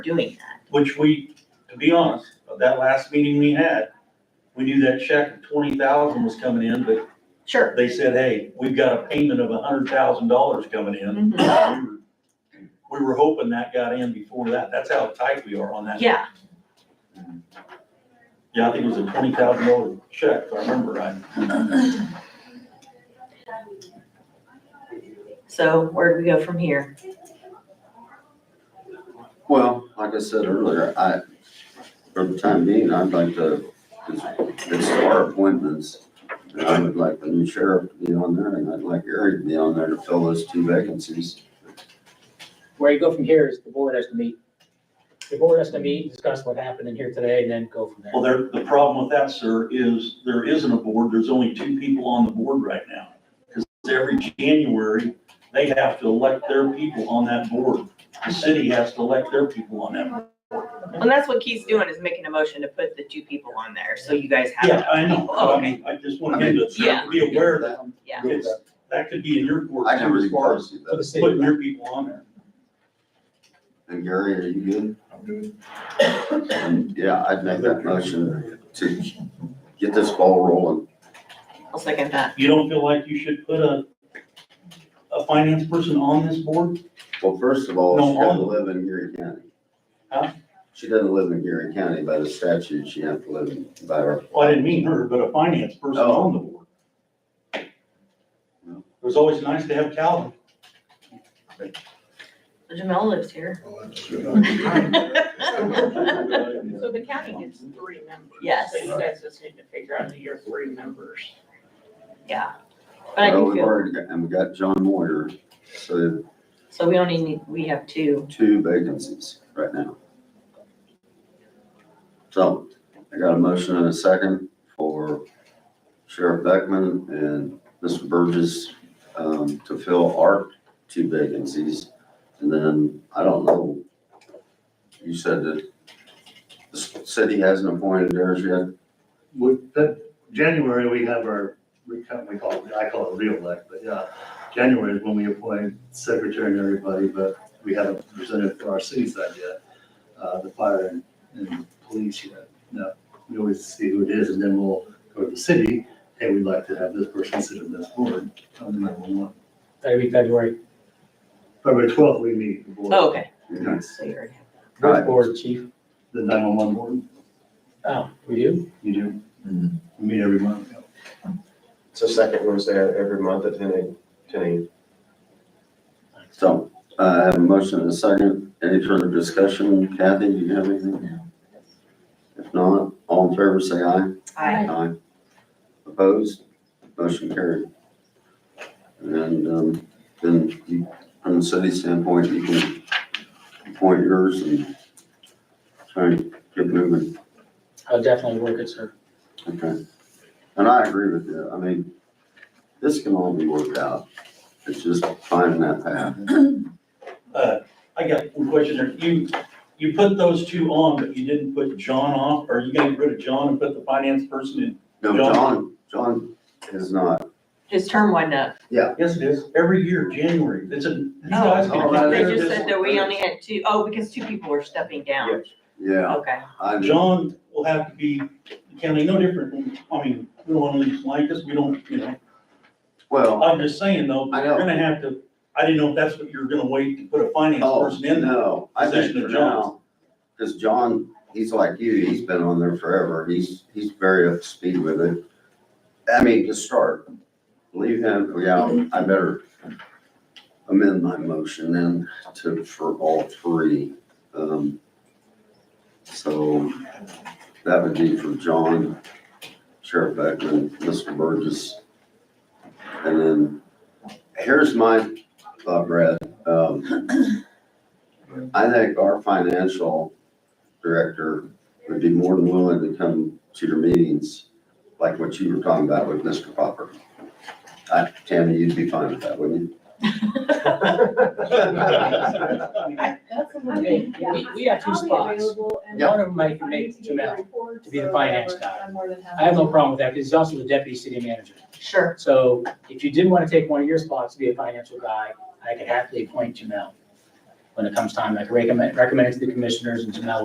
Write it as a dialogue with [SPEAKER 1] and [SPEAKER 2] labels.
[SPEAKER 1] doing that.
[SPEAKER 2] which we, to be honest, that last meeting we had, we knew that check of twenty thousand was coming in, but
[SPEAKER 1] Sure.
[SPEAKER 2] they said, hey, we've got a payment of a hundred thousand dollars coming in.
[SPEAKER 1] Mhm.
[SPEAKER 2] We were hoping that got in before that. That's how tight we are on that.
[SPEAKER 1] Yeah,
[SPEAKER 2] Yeah, I think it was a twenty thousand dollar check, if I remember right.
[SPEAKER 1] so where do we go from here?
[SPEAKER 3] Well, like I said earlier, I, for the time being, I'd like to, it's, it's our appointments. And I would like the new sheriff to be on there and I'd like Eric to be on there to fill those two vacancies.
[SPEAKER 4] Where you go from here is the board has to meet. The board has to meet, discuss what happened in here today, and then go from there.
[SPEAKER 2] Well, there, the problem with that, sir, is there isn't a board. There's only two people on the board right now. Because every January, they have to elect their people on that board. The city has to elect their people on that board.
[SPEAKER 1] And that's what Keith's doing is making a motion to put the two people on there, so you guys have.
[SPEAKER 2] Yeah, I know.
[SPEAKER 1] Oh,
[SPEAKER 2] I
[SPEAKER 1] okay.
[SPEAKER 2] mean, I just want him
[SPEAKER 1] Yeah.
[SPEAKER 2] to be aware that
[SPEAKER 1] Yeah.
[SPEAKER 2] it's, that could be in your court
[SPEAKER 3] I can
[SPEAKER 2] too, as far as
[SPEAKER 3] reinforce you
[SPEAKER 4] For the
[SPEAKER 3] that.
[SPEAKER 4] city.
[SPEAKER 2] putting your people on there.
[SPEAKER 3] And Gary, are you good?
[SPEAKER 5] I'm good.
[SPEAKER 3] And yeah, I'd make that motion to get this ball rolling.
[SPEAKER 1] I'll second that.
[SPEAKER 2] You don't feel like you should put a, a finance person on this board?
[SPEAKER 3] Well, first of all,
[SPEAKER 2] No,
[SPEAKER 3] she doesn't
[SPEAKER 2] all-
[SPEAKER 3] live in Gary County.
[SPEAKER 2] Huh?
[SPEAKER 3] She doesn't live in Gary County. By the statute, she has to live in- by her.
[SPEAKER 2] Well, Oh, I didn't mean her, but a finance person
[SPEAKER 3] Oh.
[SPEAKER 2] on the board. It was always nice to have Calvin.
[SPEAKER 1] Jamel lives here.
[SPEAKER 5] Well, that's good.
[SPEAKER 6] So the county gets three members.
[SPEAKER 1] Yes.
[SPEAKER 6] So you guys just need to figure out your three members.
[SPEAKER 1] Yeah. But I
[SPEAKER 3] Well,
[SPEAKER 1] do
[SPEAKER 3] we've
[SPEAKER 1] feel,
[SPEAKER 3] already got, and we got John Moyer, so
[SPEAKER 1] so we only need, we have two.
[SPEAKER 3] two vacancies right now. So I got a motion and a second for Sheriff Beckman and Mr. Burgess um, to fill our two vacancies. And then, I don't know, you said that the city hasn't appointed theirs yet.
[SPEAKER 5] With that, January, we have our, we kind of- we call, it- I call it re-elect, but yeah, January is when we appoint secretary and everybody, but we haven't presented for our city side yet, uh, the fire and, and police yet. No, we always see who it is and then we'll go to the city, hey, we'd like to have this person sit on this board, on the number one.
[SPEAKER 4] That'd be February.
[SPEAKER 5] February twelfth, we meet the board.
[SPEAKER 1] Oh, okay.
[SPEAKER 5] Yes,
[SPEAKER 1] So you already have.
[SPEAKER 3] Right.
[SPEAKER 4] Which board, chief?
[SPEAKER 5] The nine-one-one board,
[SPEAKER 4] Oh, we do?
[SPEAKER 5] you do, we meet every month. yeah.
[SPEAKER 7] It's the second Wednesday of every month at ten a.m.
[SPEAKER 3] So uh, I have a motion and a second. Any further discussion? Kathy, do you have anything? If not, all in favor, say aye.
[SPEAKER 1] I,
[SPEAKER 3] Aye. Opposed? Motion carried. And, um, then you, from the city standpoint, you can appoint yours and try and get moving.
[SPEAKER 4] I'll definitely work it, sir.
[SPEAKER 3] Okay. And I agree with you. I mean, this can all be worked out. It's just finding that path.
[SPEAKER 2] Uh, I got one question there. You, you put those two on, but you didn't put John off? Are you gonna get rid of John and put the finance person in?
[SPEAKER 3] No, John, John is not.
[SPEAKER 1] his term went up.
[SPEAKER 2] Yes, it is. Every year, January. It's a, you guys
[SPEAKER 3] Oh,
[SPEAKER 2] can
[SPEAKER 3] right.
[SPEAKER 2] compare
[SPEAKER 1] They
[SPEAKER 3] there
[SPEAKER 1] just
[SPEAKER 3] it
[SPEAKER 2] this.
[SPEAKER 1] said
[SPEAKER 3] is.
[SPEAKER 1] that we only had two, oh, because two people were stepping down.
[SPEAKER 3] Yeah,
[SPEAKER 1] Okay.
[SPEAKER 3] I do.
[SPEAKER 2] John will have to be, county no different. than- I mean, we don't wanna leave like this. We don't, you know.
[SPEAKER 3] Well,
[SPEAKER 2] I'm just saying though,
[SPEAKER 3] I
[SPEAKER 2] you're
[SPEAKER 3] know.
[SPEAKER 2] gonna have to, I didn't know if that's what you were gonna wait to put a finance
[SPEAKER 3] oh,
[SPEAKER 2] person in there.
[SPEAKER 3] no, I think
[SPEAKER 2] Position
[SPEAKER 3] for
[SPEAKER 2] of
[SPEAKER 3] now, because John, he's like you, he's been on there forever. He's, he's very up to speed with it. I mean, to start, leave him, yeah, I better amend my motion then to, for all three. Um, So that would be for John, Sheriff Beckman, Mr. Burgess. And then, here's my thought, Brad. Um, I think our financial director would be more than willing to come to your meetings, like what you were talking about with Mr. Popper. Uh, Tammy, you'd be fine with that, wouldn't you?
[SPEAKER 4] Hey, we, we have two spots. One of them I can make Jamel to be the finance guy. I have no problem with that, because he's also the deputy city manager.
[SPEAKER 1] Sure.
[SPEAKER 4] So if you did want to take one of your spots to be a financial guy, I could happily appoint Jamel. when it comes time, like recommend, recommend it to the commissioners and Janelle